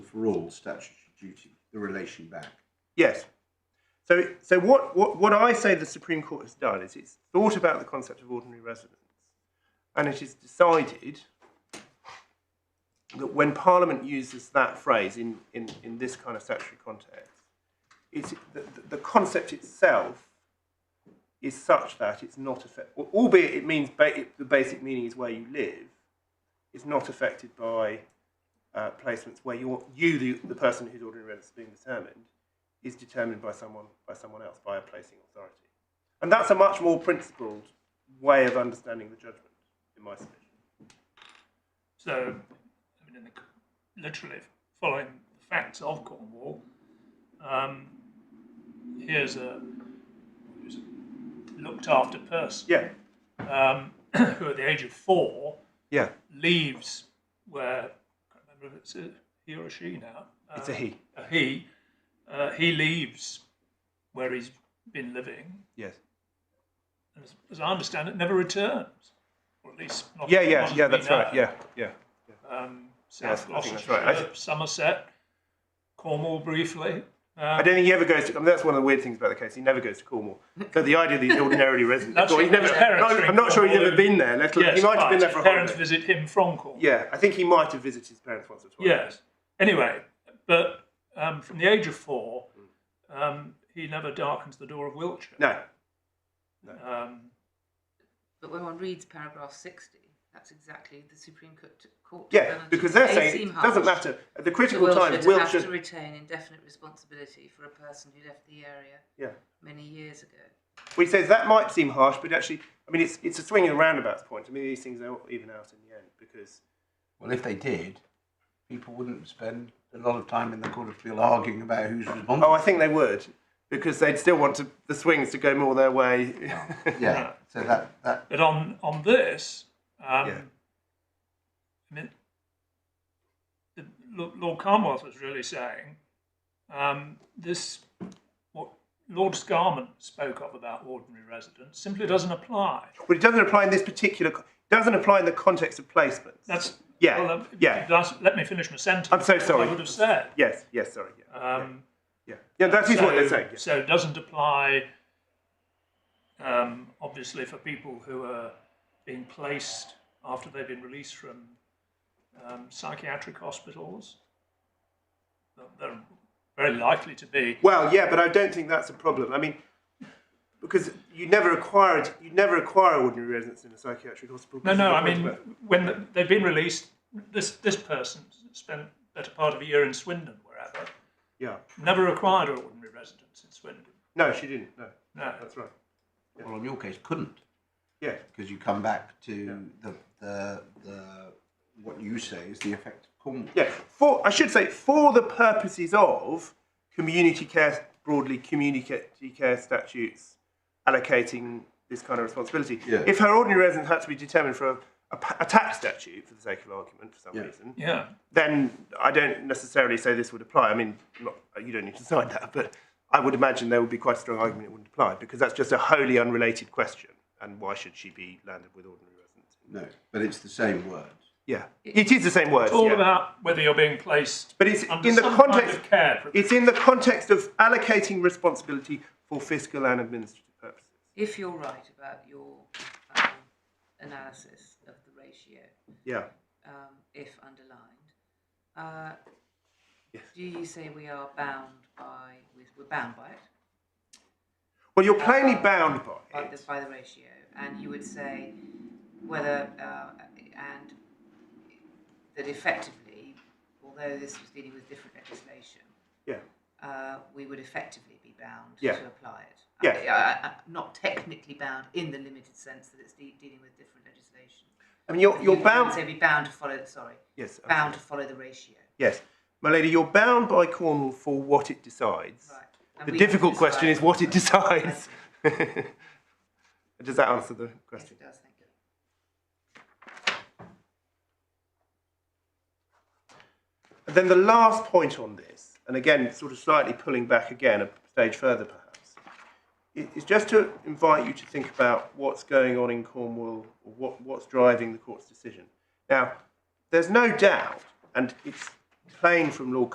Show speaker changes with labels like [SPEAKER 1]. [SPEAKER 1] overall statutory duty, the relation back.
[SPEAKER 2] Yes. So, so what, what, what I say the Supreme Court has done is it's thought about the concept of ordinary residence and it is decided that when Parliament uses that phrase in, in, in this kind of statutory context, it's, the, the concept itself is such that it's not affected, albeit it means ba- it, the basic meaning is where you live, it's not affected by uh, placements where you're, you, the, the person whose ordinary residence is being determined, is determined by someone by someone else by a placing authority, and that's a much more principled way of understanding the judgment, in my submission.
[SPEAKER 3] So, I mean, in the, literally following the facts of Cornwall, um, here's a who's a looked after person
[SPEAKER 2] Yeah,
[SPEAKER 3] um, who, at the age of four,
[SPEAKER 2] yeah,
[SPEAKER 3] leaves where I can't remember if it's a he or a she now. Uh,
[SPEAKER 2] it's a he.
[SPEAKER 3] a he. Uh, he leaves where he's been living,
[SPEAKER 2] Yes.
[SPEAKER 3] and as, as I understand it, never returns, or at least not.
[SPEAKER 2] Yeah,
[SPEAKER 3] not
[SPEAKER 2] yeah,
[SPEAKER 3] as
[SPEAKER 2] yeah.
[SPEAKER 3] we
[SPEAKER 2] That's
[SPEAKER 3] know.
[SPEAKER 2] right. Yeah, yeah.
[SPEAKER 3] um,
[SPEAKER 2] Yes,
[SPEAKER 3] South
[SPEAKER 2] I think that's
[SPEAKER 3] Gloucestershire,
[SPEAKER 2] right. I th-
[SPEAKER 3] Somerset, Cornwall briefly.
[SPEAKER 2] I don't think he ever goes to. I mean, that's one of the weird things about the case. He never goes to Cornwall. So the idea that he's ordinarily resident,
[SPEAKER 3] That's
[SPEAKER 2] or he's
[SPEAKER 3] right,
[SPEAKER 2] never.
[SPEAKER 3] his parents
[SPEAKER 2] no,
[SPEAKER 3] are
[SPEAKER 2] I'm
[SPEAKER 3] in
[SPEAKER 2] not sure he's
[SPEAKER 3] Cornwall.
[SPEAKER 2] ever been there. Let alone,
[SPEAKER 3] Yes,
[SPEAKER 2] he might have
[SPEAKER 3] but
[SPEAKER 2] been there for
[SPEAKER 3] his
[SPEAKER 2] a
[SPEAKER 3] parents
[SPEAKER 2] holiday.
[SPEAKER 3] visit him from Cornwall.
[SPEAKER 2] Yeah, I think he might have visited his parents once or twice.
[SPEAKER 3] Yes. Anyway, but um, from the age of four, um, he never darkens the door of Wiltshire.
[SPEAKER 2] No.
[SPEAKER 3] Um,
[SPEAKER 4] But when one reads paragraph 60, that's exactly the Supreme Co- t- Court.
[SPEAKER 2] Yeah,
[SPEAKER 4] penalty.
[SPEAKER 2] because they're
[SPEAKER 4] They
[SPEAKER 2] saying
[SPEAKER 4] seem
[SPEAKER 2] it
[SPEAKER 4] harsh.
[SPEAKER 2] doesn't matter. At the
[SPEAKER 4] The
[SPEAKER 2] critical
[SPEAKER 4] Wiltshire
[SPEAKER 2] time,
[SPEAKER 4] to have to
[SPEAKER 2] Wiltshire.
[SPEAKER 4] retain indefinite responsibility for a person who left the area
[SPEAKER 2] Yeah.
[SPEAKER 4] many years ago.
[SPEAKER 2] Well, he says that might seem harsh, but actually, I mean, it's it's a swinging roundabouts point. I mean, these things are even out in the end because
[SPEAKER 1] Well, if they did, people wouldn't spend a lot of time in the court of appeal arguing about who's responsible.
[SPEAKER 2] oh, I think they would because they'd still want to, the swings to go more their way.
[SPEAKER 1] yeah. So that that
[SPEAKER 3] but on, on this, um,
[SPEAKER 2] Yeah.
[SPEAKER 3] I mean, the, Lo- Lord Carnwath was really saying um, this, what Lord Scarman spoke of about ordinary residents simply doesn't apply.
[SPEAKER 2] but it doesn't apply in this particular. co- It doesn't apply in the context of placements.
[SPEAKER 3] That's
[SPEAKER 2] Yeah,
[SPEAKER 3] Well, um,
[SPEAKER 2] yeah.
[SPEAKER 3] that's- let me finish my sentence.
[SPEAKER 2] I'm so sorry.
[SPEAKER 3] I would have said.
[SPEAKER 2] yes, yes, sorry, yeah,
[SPEAKER 3] Um,
[SPEAKER 2] yeah, yeah. That is
[SPEAKER 3] so,
[SPEAKER 2] what they're saying. yeah.
[SPEAKER 3] So it doesn't apply, um, obviously, for people who are being placed after they've been released from um, psychiatric hospitals. But They're very likely to be.
[SPEAKER 2] Well, yeah, but I don't think that's a problem. I mean, because you never acquire you never acquire ordinary residence in a psychiatric hospital.
[SPEAKER 3] No,
[SPEAKER 2] This is
[SPEAKER 3] no.
[SPEAKER 2] the
[SPEAKER 3] I
[SPEAKER 2] point
[SPEAKER 3] mean,
[SPEAKER 2] about-
[SPEAKER 3] when they've been released, this this person spent the better part of a year in Swindon, wherever,
[SPEAKER 2] yeah,
[SPEAKER 3] never acquired an ordinary residence in Swindon.
[SPEAKER 2] no, she didn't. No,
[SPEAKER 3] No.
[SPEAKER 2] that's right.
[SPEAKER 1] well, in your case, couldn't
[SPEAKER 2] Yeah,
[SPEAKER 1] because you come back to the the the what you say is the effect of Cornwall.
[SPEAKER 2] yeah. For I should say, for the purposes of community care broadly, community care statutes allocating this kind of responsibility.
[SPEAKER 1] Yeah.
[SPEAKER 2] If her ordinary residence had to be determined for a, a, pa- a tax statute, for the sake of argument, for some
[SPEAKER 1] Yeah.
[SPEAKER 2] reason,
[SPEAKER 3] Yeah.
[SPEAKER 2] then I don't necessarily say this would apply. I mean, not, you don't need to decide that, but I would imagine there would be quite a strong argument it wouldn't apply because that's just a wholly unrelated question. And why should she be landed with ordinary residence?
[SPEAKER 1] No, but it's the same word.
[SPEAKER 2] Yeah, it is the same word.
[SPEAKER 3] It's all
[SPEAKER 2] yeah.
[SPEAKER 3] about whether you're being placed
[SPEAKER 2] But it's
[SPEAKER 3] under
[SPEAKER 2] in the
[SPEAKER 3] some
[SPEAKER 2] context.
[SPEAKER 3] kind of care. for-
[SPEAKER 2] It's in the context of allocating responsibility for fiscal and administrative purposes.
[SPEAKER 4] If you're right about your um, analysis of the ratio,
[SPEAKER 2] Yeah.
[SPEAKER 4] um, if underlined, uh,
[SPEAKER 2] Yes.
[SPEAKER 4] do you say we are bound by, we're bound by it?
[SPEAKER 2] Well, you're plainly bound by
[SPEAKER 4] by
[SPEAKER 2] it.
[SPEAKER 4] the, by the ratio, and you would say whether uh, and that effectively, although this was dealing with different legislation,
[SPEAKER 2] Yeah.
[SPEAKER 4] uh, we would effectively be bound
[SPEAKER 2] Yeah.
[SPEAKER 4] to apply it.
[SPEAKER 2] Yeah.
[SPEAKER 4] I- I- I- not technically bound in the limited sense that it's de- dealing with different legislation.
[SPEAKER 2] I mean, you're,
[SPEAKER 4] You
[SPEAKER 2] you're
[SPEAKER 4] would
[SPEAKER 2] bound.
[SPEAKER 4] Say be bound to follow. Sorry,
[SPEAKER 2] Yes. I'm
[SPEAKER 4] bound to follow the ratio.
[SPEAKER 2] Yes, my lady, you're bound by Cornwall for what it decides.
[SPEAKER 4] Right. And
[SPEAKER 2] The
[SPEAKER 4] we
[SPEAKER 2] difficult
[SPEAKER 4] decide-
[SPEAKER 2] question is what it decides.
[SPEAKER 4] Yes,
[SPEAKER 2] Does that answer the question?
[SPEAKER 4] it does. Thank you.
[SPEAKER 2] And then the last point on this, and again, sort of slightly pulling back again a stage further perhaps, i- is just to invite you to think about what's going on in Cornwall, or what, what's driving the court's decision. Now, there's no doubt, and it's plain from Lord